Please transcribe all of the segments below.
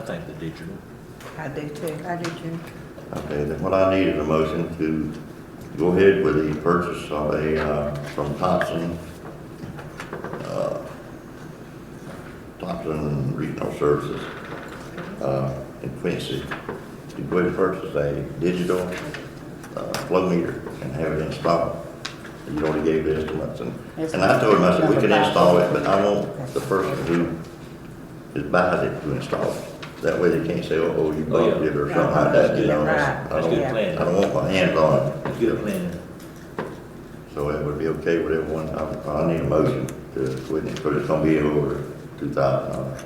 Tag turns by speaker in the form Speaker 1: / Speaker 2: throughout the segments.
Speaker 1: think the digital.
Speaker 2: I do too. I do too.
Speaker 3: Okay, then what I need is a motion to go ahead with the purchase of a, uh, from Thompson, uh, Thompson Regional Services, uh, in Quincy, to go ahead and purchase a digital, uh, flow meter and have it installed. You already gave the estimates and, and I told him, I said, we can install it, but I want the person who is buys it to install it. That way they can't say, oh, oh, you bought it or something like that, you know?
Speaker 2: Right.
Speaker 3: I
Speaker 1: That's
Speaker 3: don't,
Speaker 1: good
Speaker 2: Yeah.
Speaker 3: I
Speaker 1: planning.
Speaker 3: don't want my hands on it.
Speaker 1: That's good planning.
Speaker 3: So it would be okay with everyone, I, I need a motion to, quit it, but it's gonna be over two thousand dollars.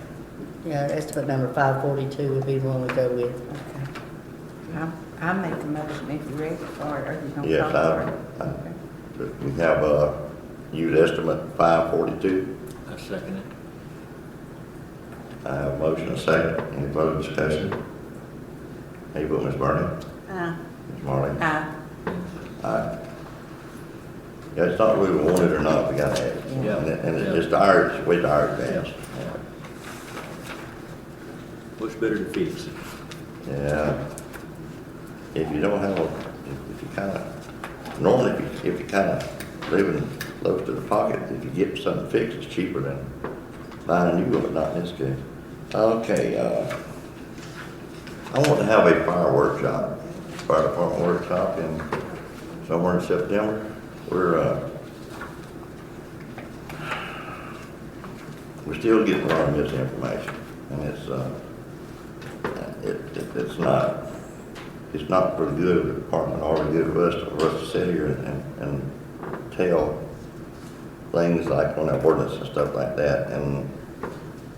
Speaker 4: Yeah, estimate number five forty-two would be the one we go with.
Speaker 2: I, I make the motion if you're ready for it, or you don't.
Speaker 3: Yes,
Speaker 2: call
Speaker 3: I, I,
Speaker 2: for it.
Speaker 3: but we have a used estimate five forty-two.
Speaker 1: I second it.
Speaker 3: I have a motion, and a second, any further discussion? How you vote, Ms. Bernie?
Speaker 2: Aye.
Speaker 3: Ms. Marley?
Speaker 2: Aye.
Speaker 3: Aye. Yeah, it's not really wanted or not, we gotta have it.
Speaker 1: Yeah.
Speaker 3: And it- And
Speaker 1: Yeah.
Speaker 3: it's just ours, it's way to our advantage.
Speaker 1: What's better to fix?
Speaker 3: Yeah. If you don't have, a- if if you kind of, normally if you, if you kind of living close to the pocket, if you get something fixed, it's cheaper than buying a new one, but not in this case. Okay, uh, I want to have a fire workshop, fire department workshop in, somewhere in September. We're, uh, we're still getting a lot of misinformation, and it's, uh, it, it- it's not, it's not for the good of the department or the good of us, for us to sit here and, and tell things like on that ordinance and stuff like that, and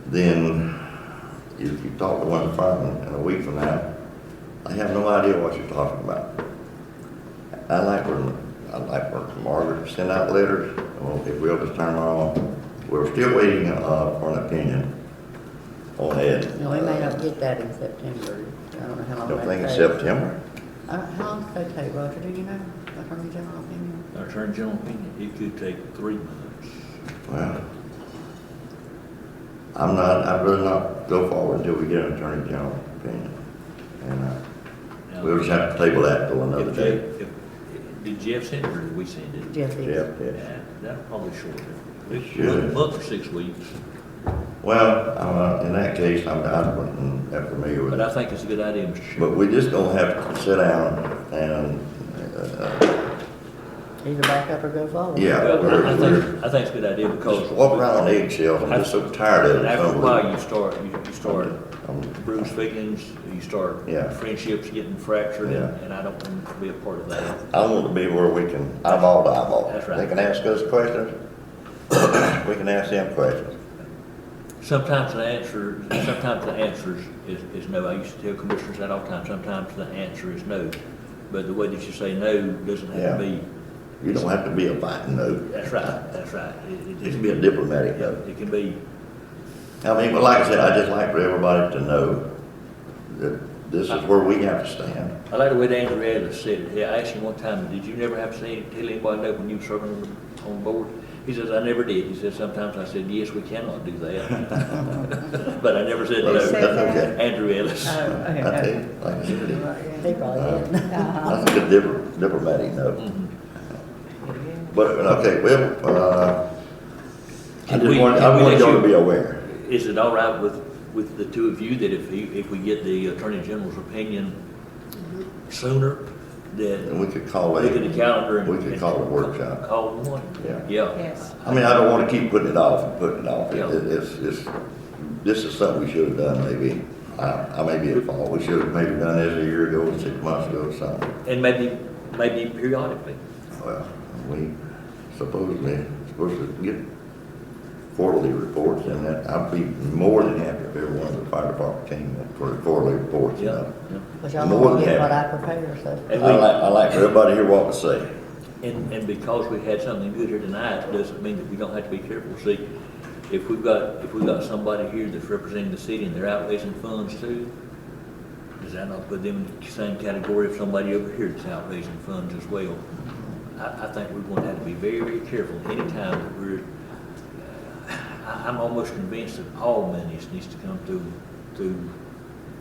Speaker 3: then if you talk to one of the firemen in a week from now, they have no idea what you're talking about. I like when, I like when Margaret sent out letters, well, if we'll just turn around, we're still waiting, uh, for an opinion on Ed.
Speaker 4: No, we may not get that in September. I don't know how long.
Speaker 3: Don't
Speaker 4: that
Speaker 3: think it's
Speaker 4: takes.
Speaker 3: September.
Speaker 4: Uh, How long does that take, Roger? Do you know? Attorney General opinion?
Speaker 1: Our Attorney General opinion, it could take three months.
Speaker 3: Well, I'm not, I'd rather not go forward until we get an attorney general opinion. And, uh,
Speaker 1: Now,
Speaker 3: we'll just have to table that till another
Speaker 1: if
Speaker 3: day.
Speaker 1: Jeff- if- Did Jeff send it or did we send it?
Speaker 4: Jeff is.
Speaker 3: Yeah, yeah.
Speaker 1: Yeah, That'll probably shorten it.
Speaker 3: It should.
Speaker 1: A month or six weeks,
Speaker 3: Well, I'm, uh, in that case, I'm, I'm not familiar with
Speaker 1: but
Speaker 3: it.
Speaker 1: I think it's a good idea, Mr. Chairman.
Speaker 3: But we just gonna have to sit down and, uh,
Speaker 4: Either back up or go forward.
Speaker 3: Yeah.
Speaker 1: Well, I- I
Speaker 3: we're-
Speaker 1: think, I think it's a good idea because.
Speaker 3: just walk around on eggshells. I'm just so tired of it.
Speaker 1: After a
Speaker 3: Some-
Speaker 1: while, you start, you you start
Speaker 3: I'm-
Speaker 1: bruised feelings, you start
Speaker 3: Yeah.
Speaker 1: friendships getting fractured, and
Speaker 3: Yeah.
Speaker 1: and I don't want to be a part of that.
Speaker 3: I want to be where we can eyeball to eyeball.
Speaker 1: That's right.
Speaker 3: They can ask us questions. We can ask them questions.
Speaker 1: Sometimes the answer, sometimes the answer is, is no. I used to tell commissioners that all the time, sometimes the answer is no. But the way that you say no doesn't have to
Speaker 3: Yeah.
Speaker 1: be,
Speaker 3: You don't have to be a fighting no.
Speaker 1: that's right, that's right. It-
Speaker 3: It
Speaker 1: It
Speaker 3: can be a diplomatic no.
Speaker 1: It can be,
Speaker 3: I mean, but like I said, I just like for everybody to know that this is where we have to stand.
Speaker 1: I like the way Andrew Ellis said it. He- I asked him one time, did you never have to say, tell anybody no when you were serving on the- on board? He says, I never did. He says, sometimes I said, yes, we cannot do that. But I never said
Speaker 3: But uh, That's
Speaker 1: no.
Speaker 2: said that?
Speaker 3: okay.
Speaker 1: Andrew Ellis.
Speaker 2: Oh, okay,
Speaker 3: I tell
Speaker 2: okay.
Speaker 3: you, like I said, it-
Speaker 4: They probably
Speaker 3: Uh,
Speaker 4: did.
Speaker 2: Uh-huh.
Speaker 3: that's a good dip- diplomatic no.
Speaker 1: Mhm.
Speaker 3: But, okay, well, uh, I
Speaker 1: Can
Speaker 3: just
Speaker 1: we-
Speaker 3: want,
Speaker 1: can
Speaker 3: I
Speaker 1: we
Speaker 3: want
Speaker 1: let
Speaker 3: y'all
Speaker 1: you-
Speaker 3: to be aware.
Speaker 1: Is it all right with, with the two of you that if he, if we get the Attorney General's opinion sooner,
Speaker 3: And
Speaker 1: that
Speaker 3: we could call
Speaker 1: look at the
Speaker 3: it,
Speaker 1: calendar and.
Speaker 3: we could call a workshop.
Speaker 1: Call one?
Speaker 3: Yeah.
Speaker 1: Yeah.
Speaker 2: Yes.
Speaker 3: I mean, I don't want to keep putting it off and putting it off. It-
Speaker 1: Yeah.
Speaker 3: it- It's, it's, this is something we should have done maybe, I, I may be at fault. We should have maybe done this a year ago, or six months ago or something.
Speaker 1: And maybe, maybe periodically.
Speaker 3: Well, we supposedly, supposed to get quarterly reports and that, I'd be more than happy if every one of the fire department came in for the quarterly reports, you
Speaker 1: Yeah.
Speaker 3: know.
Speaker 1: yeah.
Speaker 4: But y'all
Speaker 3: More
Speaker 4: won't
Speaker 3: than
Speaker 4: get what I
Speaker 3: that.
Speaker 4: prepared, so.
Speaker 3: I
Speaker 1: And we-
Speaker 3: like, I like for everybody here what to say.
Speaker 1: And, and because we had something good here tonight, doesn't mean that we don't have to be careful. See, if we've got, if we've got somebody here that's representing the city and they're out raising funds too, does that not put them in the same category of somebody over here that's out raising funds as well? I, I think we're going to have to be very, very careful anytime that we're, uh, I, I'm almost convinced that all monies needs to come through, through